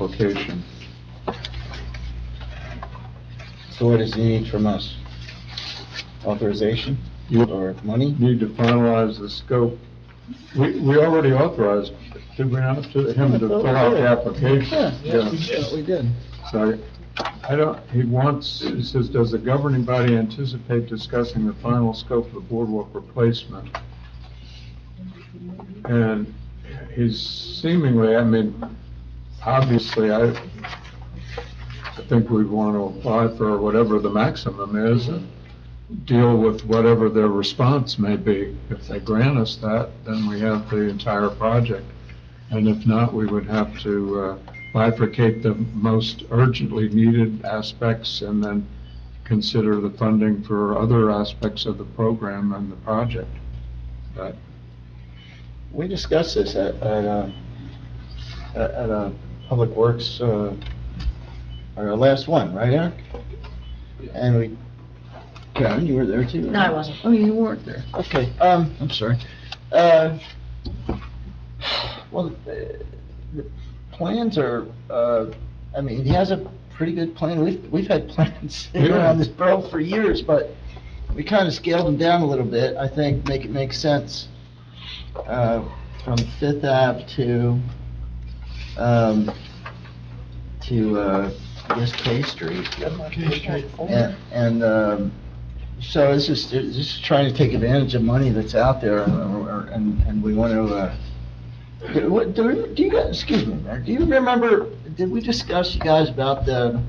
application. So what does he need from us? Authorization You or money? need to finalize the scope. We, we already authorized, did we not, to him to fill out the application? we did. So I don't, he wants, he says, does the governing body anticipate discussing the final scope of the boardwalk replacement? And he's seemingly, I mean, obviously, I, I think we want to apply for whatever the maximum is and deal with whatever their response may be. If they grant us that, then we have the entire project. And if not, we would have to uh, bifurcate the most urgently needed aspects and then consider the funding for other aspects of the program and the project. But We discussed this at, at a, at at a Public Works, uh, our last one, right, Eric? And we, Karen, you were there too? No, I wasn't. Oh, you weren't there. Okay, um, I'm sorry. Uh, well, the the plans are, uh, I mean, he has a pretty good plan. We've, we've had plans Yeah. around this borough for years, but we kind of scaled them down a little bit, I think, make it make sense. Uh, from Fifth Ave to, um, to, uh, I guess K Street. And, and, um, so it's just, it's just trying to take advantage of money that's out there, uh, or- or- and, and we want to, uh, do what- do you- do you guys, excuse me, Mayor, do you remember, did we discuss, you guys, about the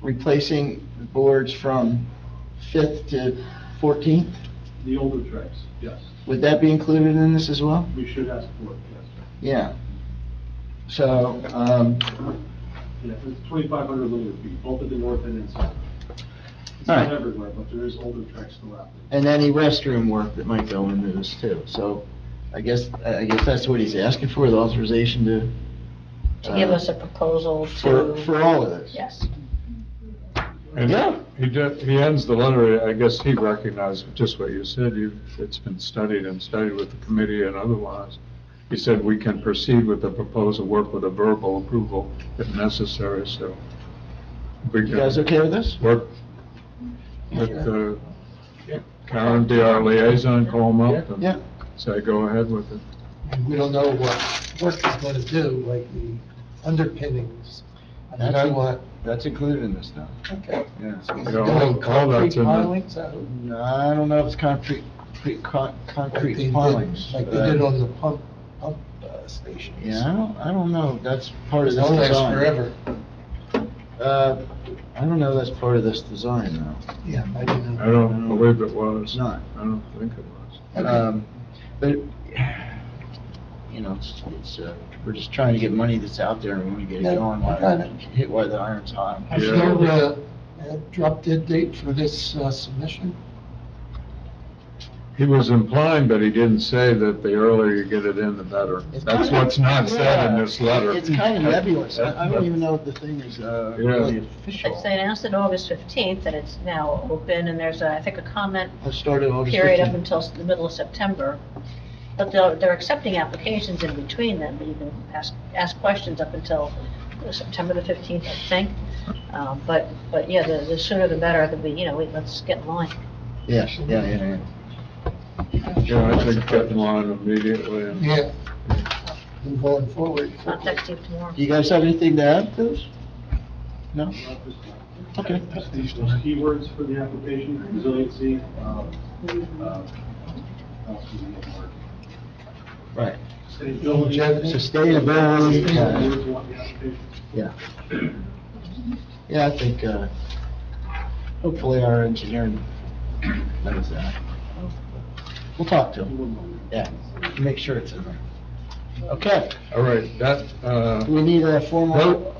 replacing the boards from Fifth to Fourteenth? The older tracks, yes. Would that be included in this as well? We should ask for it, Yeah. yes. So, um, Yeah, it's 2,500 linear feet, both at the north and in south. It's All not right. everywhere, but there is older tracks still out there. and any restroom work that might go into this too, so I guess, I guess that's what he's asking for, the authorization to. To give uh, us a proposal For, to. for all of this? Yes. and Yeah. He did, he ends the letter, I guess he recognized just what you said, you, it's been studied and studied with the committee and otherwise. He said, we can proceed with the proposal, work with a verbal approval if necessary, so. we You can- guys okay with this? work with uh, Karen, be our liaison, call them up Yeah. and say, go ahead with it. and we don't know what work is going to do, like the underpinnings. I mean, I That's- want, That's included in this now. okay. Yeah. You know, all- all that's in the- pilings out, No, I don't know if it's concrete, concrete, con- like they concrete did, pilings. like they did on the pump, pump uh, stations. Yeah, I don't, I don't know, that's part of this That design. lasts forever. Uh, I don't know that's part of this design though. Yeah, I didn't I know. don't believe it was. It's not. I don't think it was. Okay. Um, but, you know, it's, it's, uh, we're just trying to get money that's out there and we want to get it Yeah, going, I got it. while- hit while the iron's hot. Have Yeah. you ever uh, drop dead date for this uh, submission? He was implying, but he didn't say that the earlier you get it in, the better. It's That's kinda- uh, what's not said in yeah, this letter. It's kind of nebulous. I I don't even know if the thing is uh, Yeah. really official. It's- They announced it August 15th, and it's now open, and there's, a- I think, a comment It started August period up 15th. until s- the middle of September. But they're, they're accepting applications in between them, you can ask, ask questions up until September the 15th, I think. Um, But, but yeah, the the sooner the better, the, you know, we- let's get in line. Yeah, yeah, yeah, Yeah, I think get in line immediately and Yeah. And going forward. I'll text you tomorrow. yeah. You guys have anything to add to this? No? Not this time. Okay. Just These those keywords for the application, resiliency, uh, uh, else we need to work. Right. Longevity. Sustainability, Sustainability yeah, is what the application- yeah. Yeah, I think, uh, hopefully our engineering knows that. We'll talk to him, yeah, make sure it's in there. Okay, All right, that, uh, we need a Nope. formal,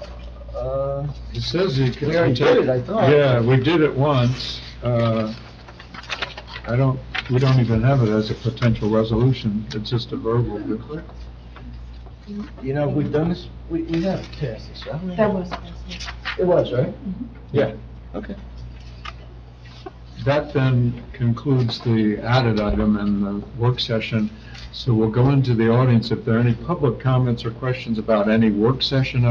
uh, It says you can. We already did it, I thought. Yeah, we did it once. Uh, I don't, we don't even have it as a potential resolution. It's just a verbal. you know, we've done this, we, we have passed this, haven't we? That was, It was, right? Yeah. Okay. That then concludes the added item and the work session. So we'll go into the audience. If there are any public comments or questions about any work session